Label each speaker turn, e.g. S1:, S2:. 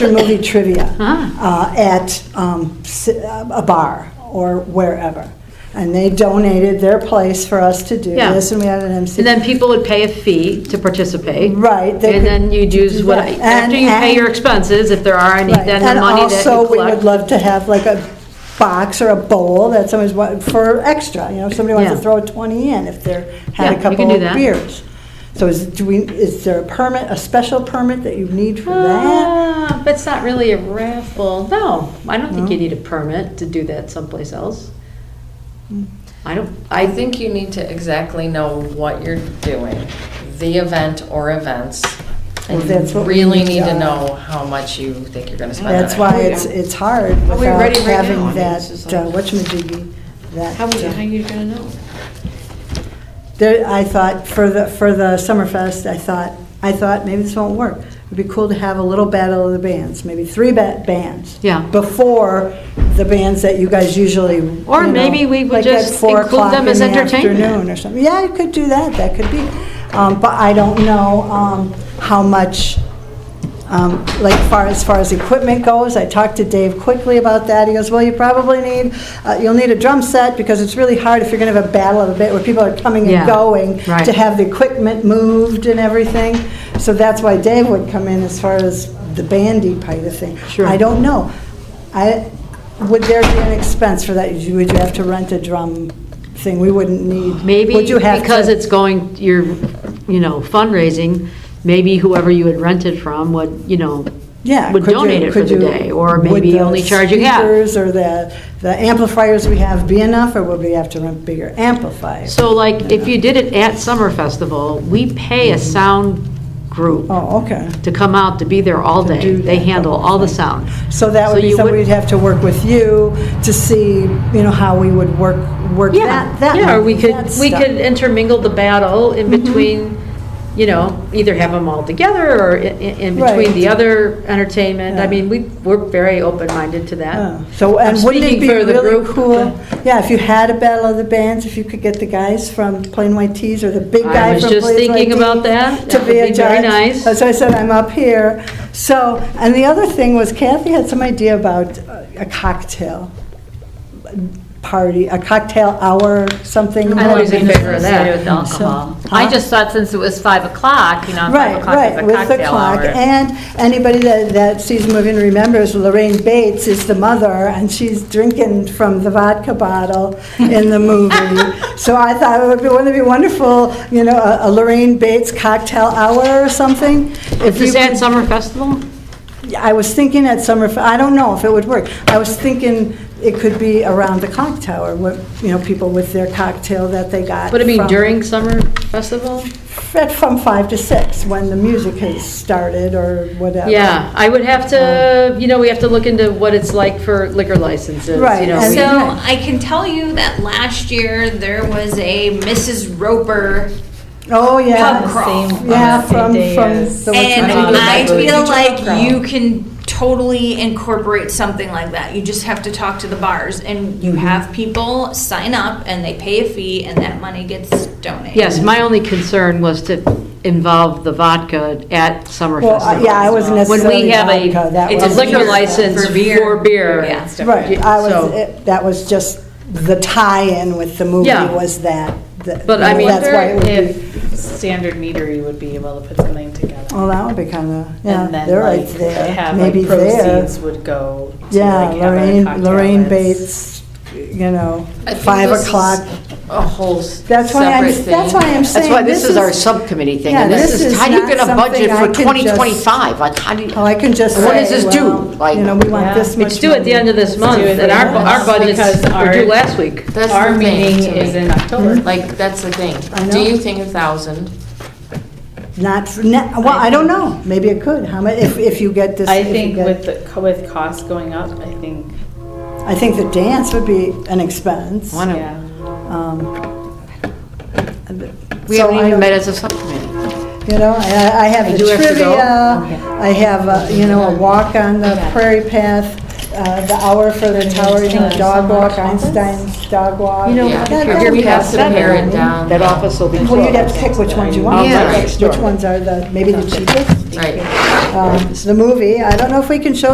S1: movie trivia
S2: Ah.
S1: uh, at um, s- a bar or wherever. And they donated their place for us to do
S2: Yeah.
S1: this, and we had an MC.
S2: And then people would pay a fee to participate.
S1: Right, they
S2: And
S1: could-
S2: then you'd use what,
S1: Right,
S2: after
S1: and-
S2: you pay
S1: and-
S2: your expenses, if there are any,
S1: Right.
S2: then the money that you collect.
S1: And also, we would love to have like a box or a bowl that somebody's, wa- for extra, you know, if somebody wants to
S2: Yeah.
S1: throw a 20 in if they're,
S2: Yeah,
S1: had
S2: you
S1: a
S2: can
S1: couple
S2: do
S1: of
S2: that.
S1: beers. So is, do we, is there a permit, a special permit that you need for that?
S2: Ah, But it's not really a raffle. No, I don't think
S1: No?
S2: you need a permit to do that someplace else.
S1: Hmm.
S2: I don't,
S3: I think you need to exactly know what you're doing, the event or events. And
S1: That's
S3: you
S1: what we
S3: really
S1: need
S3: need
S1: to-
S3: to know how much you think you're gonna spend on it.
S1: That's why it's, it's hard
S4: Are we
S1: without
S4: ready right
S1: having
S4: now? I mean,
S1: that,
S4: it's just like-
S1: uh, whatchamajiggy, that.
S4: How would you,
S1: uh,
S4: how you gonna know?
S1: There, I thought, for the, for the Summerfest, I thought, I thought, maybe this won't work. It'd be cool to have a little battle of the bands, maybe three ba- bands.
S2: Yeah.
S1: Before the bands that you guys usually,
S2: Or
S1: you know,
S2: maybe we would
S1: like at
S2: just
S1: four
S2: include
S1: o'clock
S2: them
S1: in
S2: as
S1: the
S2: entertainment.
S1: afternoon Or something, yeah, you could do that, that could be. Um, but I don't know, um, how much, um, like far, as far as equipment goes, I talked to Dave quickly about that. He goes, well, you probably need, uh, you'll need a drum set because it's really hard if you're gonna have a battle of the band where people are coming
S2: Yeah,
S1: and going
S2: right.
S1: to have the equipment moved and everything. So that's why Dave would come in as far as the bandy part of thing.
S2: Sure.
S1: I don't know. I, would there be an expense for that? Would you would you have to rent a drum thing? We wouldn't need.
S2: maybe
S1: would you have to-
S2: because it's going, you're, you know, fundraising, maybe whoever you had rented from would, you know,
S1: Yeah.
S2: would
S1: could you-
S2: donate it for
S1: could
S2: the
S1: you-
S2: day, or
S1: would
S2: maybe
S1: the
S2: only charge you half.
S1: Speakers or the, the amplifiers we have be enough, or would we have to rent bigger amplifiers?
S2: So like, if you did it at Summer Festival, we pay a sound group
S1: Oh, okay.
S2: to come out to be there all
S1: To
S2: day.
S1: do
S2: They
S1: that,
S2: handle all the
S1: okay.
S2: sound.
S1: So that would be
S2: you
S1: something
S2: would-
S1: we'd have to work with you to see, you know, how we would work, work
S2: Yeah,
S1: that, that.
S2: yeah, or we could,
S1: that
S2: we
S1: stuff. Mm-hmm.
S2: could intermingle the battle in between, you know, either have them all together or in, in between
S1: Right.
S2: the other entertainment. I
S1: Yeah.
S2: mean, we, we're very open-minded to that.
S1: Oh, So,
S2: I'm
S1: and wouldn't it
S2: speaking
S1: be
S2: for the
S1: really
S2: group.
S1: cool? Yeah, if you had a battle of the bands, if you could get the guys from Plain White Tees or the big
S2: I
S1: guy
S2: was
S1: from
S2: just
S1: Plain
S2: thinking
S1: White
S2: about
S1: Tees
S2: that.
S1: To be
S2: That would
S1: a
S2: be very
S1: judge.
S2: nice.
S1: That's why I said I'm up here. So, and the other thing was Kathy had some idea about uh, a cocktail party, a cocktail hour, something.
S5: I'm always in favor of that. With
S1: So-
S5: alcohol. I just thought since it was five o'clock, you know, five
S1: Right,
S5: o'clock is
S1: right,
S5: a
S1: with the
S5: cocktail
S1: clock.
S5: hour.
S1: And anybody that, that sees the movie and remembers, Lorraine Bates is the mother, and she's drinking from the vodka bottle in the movie. So I thought it would be, wouldn't it be wonderful, you know, a a Lorraine Bates cocktail hour or something?
S2: Is
S1: If you
S2: this at
S1: could-
S2: Summer Festival?
S1: I was thinking at summer, I don't know if it would work. I was thinking it could be around the clock tower, where, you know, people with their cocktail that they got.
S2: Would it be
S1: from-
S2: during Summer Festival?
S1: At from five to six, when the music has started or whatever.
S2: Yeah, I would have
S1: Um,
S2: to, you know, we have to look into what it's like for liquor licenses,
S1: Right,
S2: you know.
S1: and-
S2: we-
S6: So I can tell you that last year there was a Mrs. Roper,
S1: Oh, yeah.
S6: Pub crawl.
S4: Same-
S1: Yeah,
S4: on the same
S1: from,
S4: day
S1: from.
S4: as-
S1: the
S6: and
S4: not
S1: Wisconsin-
S6: I
S4: that
S6: feel
S4: good. Teacher pub crawl.
S6: like you can totally incorporate something like that. You just have to talk to the bars, and you have people sign up, and they pay a fee, and that money gets donated.
S2: Yes, my only concern was to involve the vodka at Summer
S1: Well, I-
S2: Festival.
S1: yeah, I wasn't
S2: When we
S1: necessarily
S2: have a-
S1: vodka. That
S2: It's
S1: was-
S2: a liquor license
S6: For beer.
S2: for beer.
S6: Yeah.
S1: Uh, Right, I was,
S2: So-
S1: it- that was just the tie-in with the movie
S2: Yeah.
S1: was that. that-
S2: But I mean-
S1: That's why it would be,
S4: If Standard Meadery would be able to put something together.
S1: well, Oh, that would be kind of, yeah,
S4: And then
S1: they're right
S4: like,
S1: there,
S4: have like
S1: maybe there.
S4: proceeds would go to
S1: Yeah,
S4: like have a
S1: Lorraine,
S4: cocktail.
S1: Lorraine
S4: that's-
S1: Bates, you know,
S3: I think
S1: five
S3: this is
S1: o'clock.
S3: A whole separate thing.
S1: That's why I'm, that's why I'm saying.
S7: That's why this is our subcommittee thing, and
S1: yeah,
S7: this
S1: this
S7: is,
S1: is
S7: how do you
S1: not
S7: get a budget
S1: something I
S7: for
S1: can just-
S7: 2025? Like, how do you?
S1: Oh, I can just
S7: What does
S1: say,
S7: this do?
S1: well,
S7: Like-
S1: You know, we want
S4: Yeah.
S1: this much.
S2: It's due at the end of this
S4: Let's
S2: month,
S4: do it
S2: and our,
S4: later.
S2: our budgets
S4: Because
S2: were due
S4: our-
S2: last week.
S3: That's
S4: Our
S3: the thing
S4: meeting
S3: to
S4: is
S3: me.
S4: in
S1: Hmm.
S4: October.
S3: Like, that's the thing.
S1: I know.
S3: Do you think a thousand?
S1: Not, for- ne- well, I don't know, maybe it could, how much, if, if you get this.
S4: I
S1: if you
S4: think
S1: get-
S4: with the, co- with costs going up, I think,
S1: I think the dance would be an expense.
S7: Why don't-
S4: yeah.
S1: Um,
S7: We
S1: so
S7: haven't
S1: I don't-
S7: even met as a subcommittee.
S1: You know, I I have
S2: I
S1: the
S2: do have to go?
S1: uh, trivia, I have, a, you know, a walk on the prairie path, uh, the hour for the Tower Hill Dog Walk, Einstein's Dog Walk.
S2: You know,
S3: Yeah,
S1: That- that
S2: you're
S1: would
S3: we
S1: be
S3: have to
S1: better,
S3: pare
S1: I
S3: it
S1: mean.
S3: down.
S7: That office will be closed.
S1: Well, you'd have to pick which ones you want,
S7: Yeah.
S1: right? which ones are the, maybe the cheapest.
S3: Right.
S1: Um, The movie, I don't know if we can show